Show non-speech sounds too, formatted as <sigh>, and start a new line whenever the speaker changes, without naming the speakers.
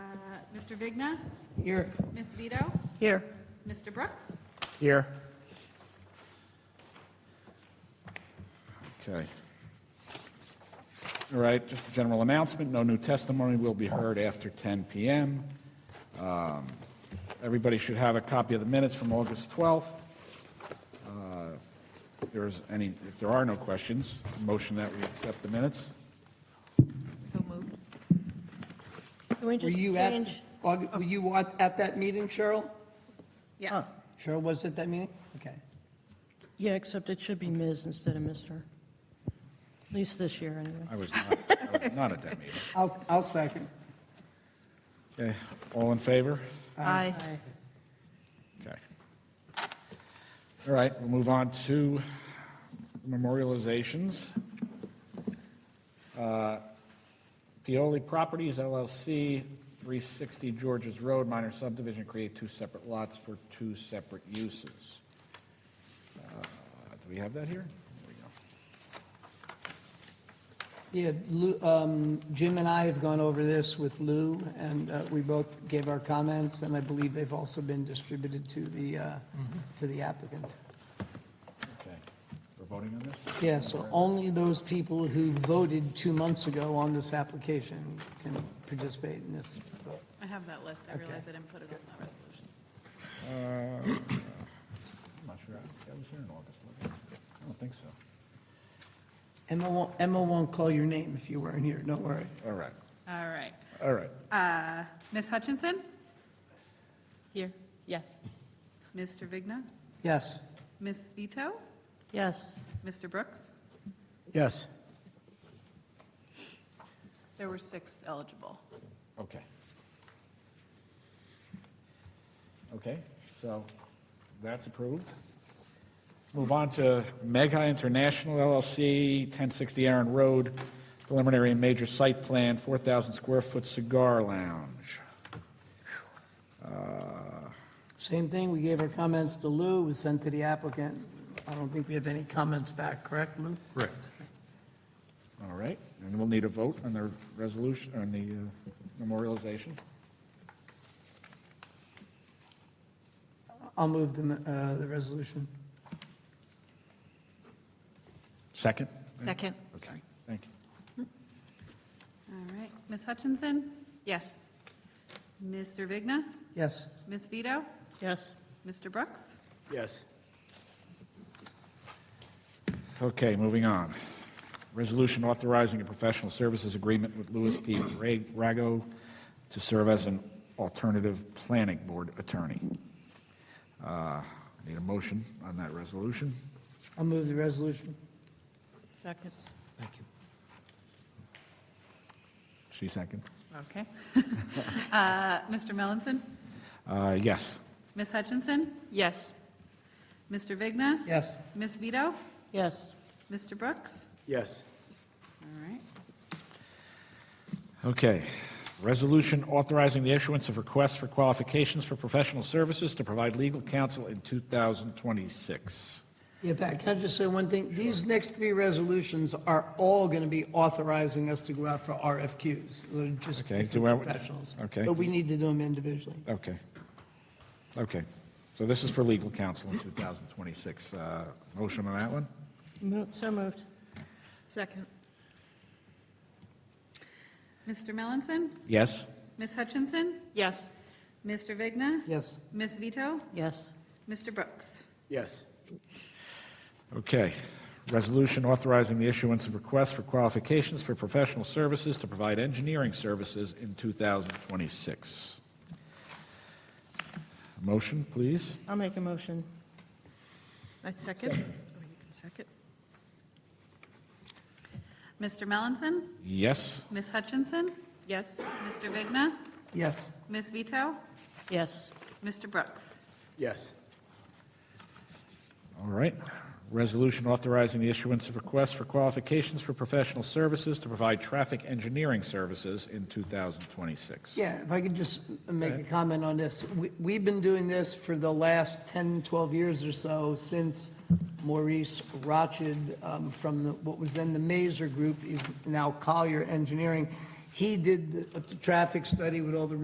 Mr. Uh, Vigna?
Here.
Ms. Vito?
Here.
Mr. Brooks?
Here.
Okay. All right, just a general announcement, no new testimony will be heard after 10 PM. Um, Everybody should have a copy of the minutes from August 12th. Uh, If there's any, if there are no questions, motion that we accept the minutes?
So moved.
Can we
Were
just
you at,
change?
Aug- were you at at that meeting, Cheryl?
Yes.
Cheryl was at that meeting? Okay.
Yeah, except it should be Ms. instead of Mr. At least this year, anyway.
I was not, I was not at that meeting.
I'll, I'll second.
Okay, all in favor?
Aye.
Okay. All right, we'll move on to memorializations. Uh, Pioli Properties LLC, 360 Georges Road, minor subdivision, create two separate lots for two separate uses. Uh, Do we have that here? There we
Yeah, Lou, um, Jim and I have gone over this with Lou, and uh, we both gave our comments, and I believe they've also been distributed to the, uh, to the applicant.
go. Okay, we're voting on this?
Yeah, so only those people who voted two months ago on this application can participate in this.
I have that list. I realize I didn't put it on that resolution.
I'm not sure, that was here in August, wasn't it? I don't think so.
Emma won't, Emma won't call your name if you weren't here, don't worry.
All right,
All right.
all right.
Uh, Ms. Hutchinson?
Here, yes.
Mr. Vigna?
Yes?
Ms. Vito?
Yes.
Mr. Brooks?
Yes.
There were six eligible.
Okay. Okay, so that's approved. Move on to Mega International LLC, 1060 Aaron Road, preliminary and major site plan, 4,000 square foot cigar lounge. Uh,
Same thing, we gave our comments to Lou, was sent to the applicant. I don't think we have any comments back, correct, Lou?
Correct. All right, and we'll need a vote on the resolution, on the uh, memorialization.
I'll move the, uh, the resolution.
Second?
Second.
Okay, thank you.
All right. Ms. Hutchinson?
Yes.
Mr. Vigna?
Yes?
Ms. Vito?
Yes.
Mr. Brooks?
Yes.
Okay, moving on. Resolution authorizing a professional services agreement with Louis P. Ra- Rago to serve as an alternative planning board attorney. Uh, Need a motion on that resolution?
I'll move the resolution.
Second.
She second?
Okay. <laughs> Uh, Mr. Melanson?
Uh, Yes.
Ms. Hutchinson?
Yes.
Mr. Vigna?
Yes?
Ms. Vito?
Yes.
Mr. Brooks?
Yes.
All right.
Okay. Resolution authorizing the issuance of requests for qualifications for professional services to provide legal counsel in 2026.
Yeah, Pat, can I just say one thing? These next three resolutions are all going to be authorizing us to go out for RFQs. They're just
Okay, do I-
different professionals.
okay.
But we need to do them individually.
Okay. Okay. So this is for legal counsel in 2026. Uh, Motion on that one?
Mo- So moved.
Second.
Mr. Melanson?
Yes?
Ms. Hutchinson?
Yes.
Mr. Vigna?
Yes?
Ms. Vito?
Yes.
Mr. Brooks?
Yes.
Okay. Resolution authorizing the issuance of requests for qualifications for professional services to provide engineering services in 2026. Motion, please?
I'll make a motion.
I second. Oh, you can Second.
Mr. Melanson?
Yes?
Ms. Hutchinson?
Yes.
Mr. Vigna?
Yes?
Ms. Vito?
Yes.
Mr. Brooks?
Yes.
All right. Resolution authorizing the issuance of requests for qualifications for professional services to provide traffic engineering services in 2026.
Yeah, if I could just make a comment on this. We- We've been doing this for the last 10, 12 years or so, since Maurice Rochard um, from the- what was then the Mazer Group, is now Collier Engineering. He did the the traffic study with all the